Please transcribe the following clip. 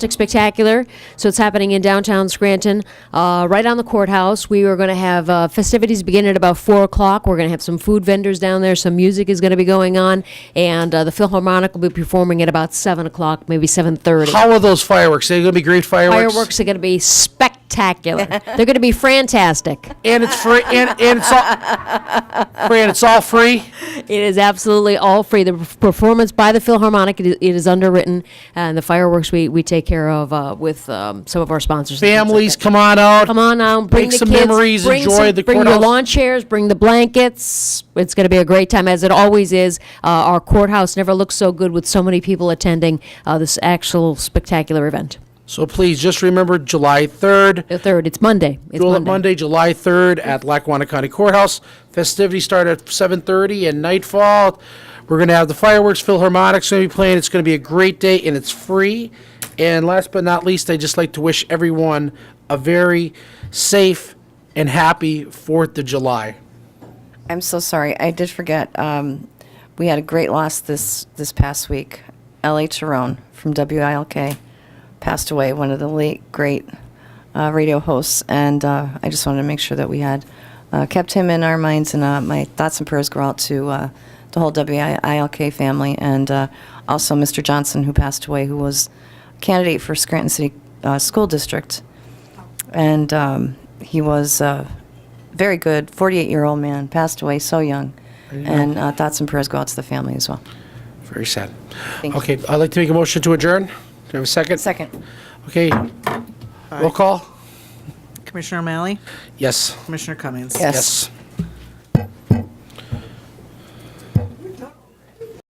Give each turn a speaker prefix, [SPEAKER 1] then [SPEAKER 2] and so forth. [SPEAKER 1] Spectacular. So it's happening in downtown Scranton, uh, right on the courthouse. We are going to have uh, festivities begin at about 4 o'clock. We're going to have some food vendors down there. Some music is going to be going on. And uh, the Philharmonic will be performing at about 7 o'clock, maybe 7.30.
[SPEAKER 2] How are those fireworks? They're going to be great fireworks.
[SPEAKER 1] Fireworks are going to be spectacular. They're going to be fantastic.
[SPEAKER 2] And it's free. And, and it's all. Fran, it's all free.
[SPEAKER 1] It is absolutely all free. The perf- performance by the Philharmonic, it is, it is underwritten, and the fireworks we, we take care of uh, with um, some of our sponsors. and things like
[SPEAKER 2] Families,
[SPEAKER 1] that.
[SPEAKER 2] come on out.
[SPEAKER 1] Come on out, bring
[SPEAKER 2] Make
[SPEAKER 1] the
[SPEAKER 2] some
[SPEAKER 1] kids,
[SPEAKER 2] memories,
[SPEAKER 1] bring
[SPEAKER 2] enjoy
[SPEAKER 1] some-
[SPEAKER 2] the
[SPEAKER 1] Bring your
[SPEAKER 2] courthouse.
[SPEAKER 1] lawn chairs, bring the blankets. It's going to be a great time, as it always is. Uh, our courthouse never looks so good with so many people attending uh, this actual spectacular event.
[SPEAKER 2] So please just remember July 3rd.
[SPEAKER 1] The third, it's Monday. It's
[SPEAKER 2] Duel at
[SPEAKER 1] Monday.
[SPEAKER 2] Monday, July 3rd at Lackawanna County Courthouse. Festivities start at 7:30 and nightfall. We're going to have the fireworks, Philharmonic's going to be playing. It's going to be a great day and it's free. And last but not least, I'd just like to wish everyone a very safe and happy 4th of July.
[SPEAKER 3] I'm so sorry. I did forget. Um, we had a great loss this this past week. L.A. Tyrone from WILK passed away, one of the late great uh, radio hosts, and uh, I just wanted to make sure that we had uh, kept him in our minds. And uh, my thoughts and prayers go out to uh, the whole WILK family, and uh, also Mr. Johnson, who passed away, who was a candidate for Scranton City uh, School District and um, he was a very good 48 year old man, passed away so young. And uh, thoughts and prayers go out to the family as well.
[SPEAKER 2] Very sad.
[SPEAKER 3] Thank you.
[SPEAKER 2] Okay, I'd like to make a motion to adjourn. Do you have a second?
[SPEAKER 3] Second.
[SPEAKER 2] Okay. Roll call?
[SPEAKER 4] Commissioner O'Malley,
[SPEAKER 2] Yes.
[SPEAKER 4] Commissioner Cummings.
[SPEAKER 3] Yes.
[SPEAKER 2] Yes.